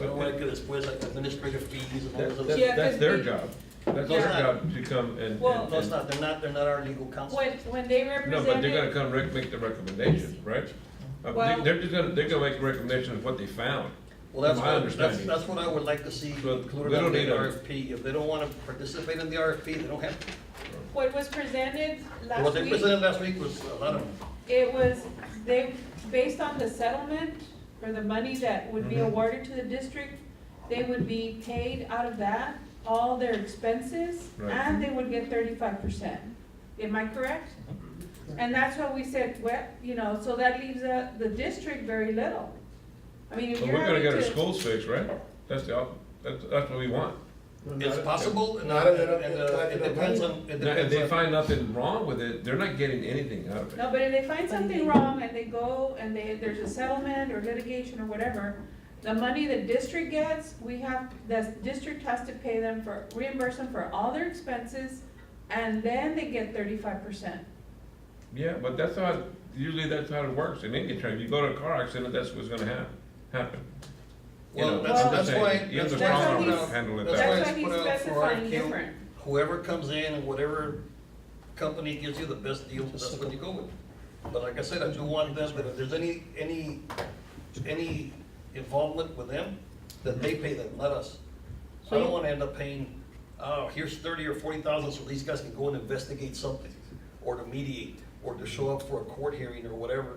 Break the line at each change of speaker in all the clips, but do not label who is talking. We don't wanna get us, where's like administrative fees and all
That-
those
that-
other.
Yeah, 'cause
That's their
they-
job. That's our
Yeah.
job to come and- and.
Well-
No, it's not, they're not, they're not our legal counsel.
When, when they
No, but they're gonna
represented,
come rec, make the recommendation, right? Uh,
Well-
they- They're just gonna, they're gonna make recommendations of what they found.
Well, that's
From my
what, that's,
understanding.
that's what I would like to see
But we
included
don't
in the
need a-
RFP. If they don't wanna participate in the RFP, they don't have, to.
what was presented
what
last
they
week,
presented last week was a lot of,
it was, they, based on the settlement or the money that would be
Mhm.
awarded to the district, they would be paid out of that, all their expenses,
Right.
and they would get thirty-five percent. Am I correct?
Mm-hmm.
And that's what we said, well, you know, so that leaves the, the district very little. I mean, if
But
you're
we're gonna
having
get our
to,
schools fixed, right? That's the, op- that's, that's what we want.
it's possible, and, uh,
Not
and,
enough-
uh,
not
it
enough.
depends on, it
Now, if they
depends on.
find nothing wrong with it, they're not getting anything out of it.
no, but if they find something wrong and they go and they, there's a settlement or litigation or whatever, the money the district gets, we have, the district has to pay them for, reimburse them for all their expenses, and then they get thirty-five percent.
Yeah, but that's how, it- usually that's how it works in any term. You go to a car accident, that's what's gonna hap, happen. you
Well,
know,
that's,
I'm
that's
saying,
why,
you have
that's
the
why it's
problem,
put out-
handle it
that's
that
why
That's
it's
why he's
put out for
specifying
RFQ.
different.
Whoever comes in and whatever company gives you the best deal, that's what you go with. But like I said, I do want them, that if there's any, any, any involvement with them, that they pay them, not us. I don't wanna end up paying, oh, here's thirty or forty thousand, so these guys can go and investigate something, or to mediate, or to show up for a court hearing or whatever.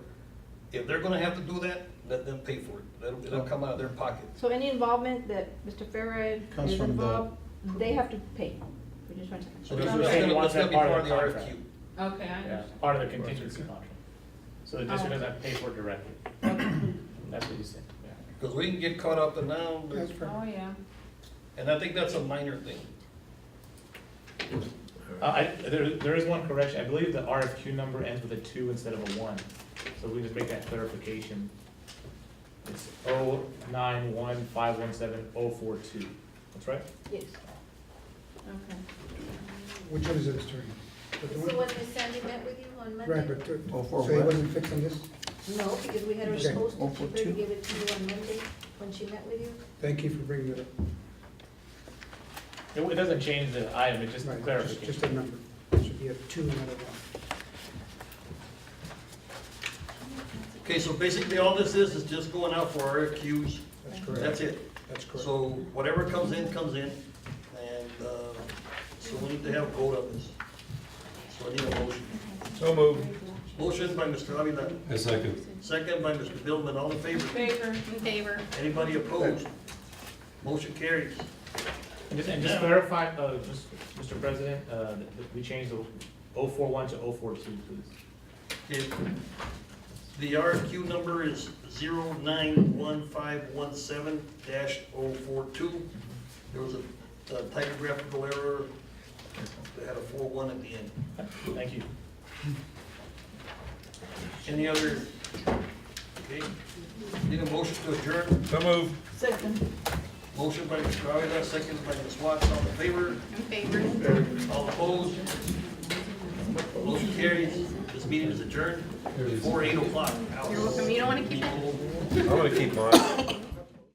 If they're gonna have to do that, let them pay for it, it'll, it'll come out of their pocket.
So any involvement that Mr. Farad
Comes
is
from the-
involved, they have to pay. We just want to-
So
Okay.
that's
they're
that's
saying
gonna,
once
that's gonna
they're
be
part
part of
of
the RFQ.
the contract.
Okay, I
Yeah,
understand.
part of the contingency contract. So the district doesn't have to pay for it directly. That's what you said, yeah.
Because we can get caught up in now,
Oh, yeah.
and I think that's a minor thing.
Uh, I, there, there is one correction. I believe the RFQ number ends with a two instead of a one. So we just make that clarification. It's oh nine one five one seven oh four two. That's right?
Yes.
Okay.
Which one is it, Mr.
So
Attorney?
when Ms. Sandy met with you on Monday?
Right, but, uh,
Oh, for
so he
what?
wasn't fixing this?
No, because we had her
Okay.
supposed
Oh,
to
for
keep her to
two.
give it to you on Monday when she met with you.
Thank you for bringing it up.
It, it doesn't change the item, it's just
Right, Just
clarification.
a number. It Should be a two, not a one.
Okay, so basically all this is, is just going out for RFQs,
That's correct.
that's it.
That's correct.
So whatever comes in, comes in, and, uh, so we need to have a vote on this. So I need a motion.
So moved.
Motion by Mr. Avila,
A second.
second by Mr. Billman, all in favor?
Favor.
In favor.
Anybody opposed? Motion carries.
And just, and just clarify, uh, just, Mr. President, uh, that- that we changed the oh four one to oh four two, please.
Okay. The RFQ number is zero nine one five one seven dash oh four two. There was a a typographical error, they had a four one at the end.
Thank you.
Any other? Okay, need a motion to adjourn,
So moved.
Second.
motion by Mr. Avila, second by Ms. Watts, all in favor,
In favor.
all opposed? Motion carries, this meeting is adjourned, before eight o'clock. You're welcome, you don't wanna keep it?
I'm gonna keep mine.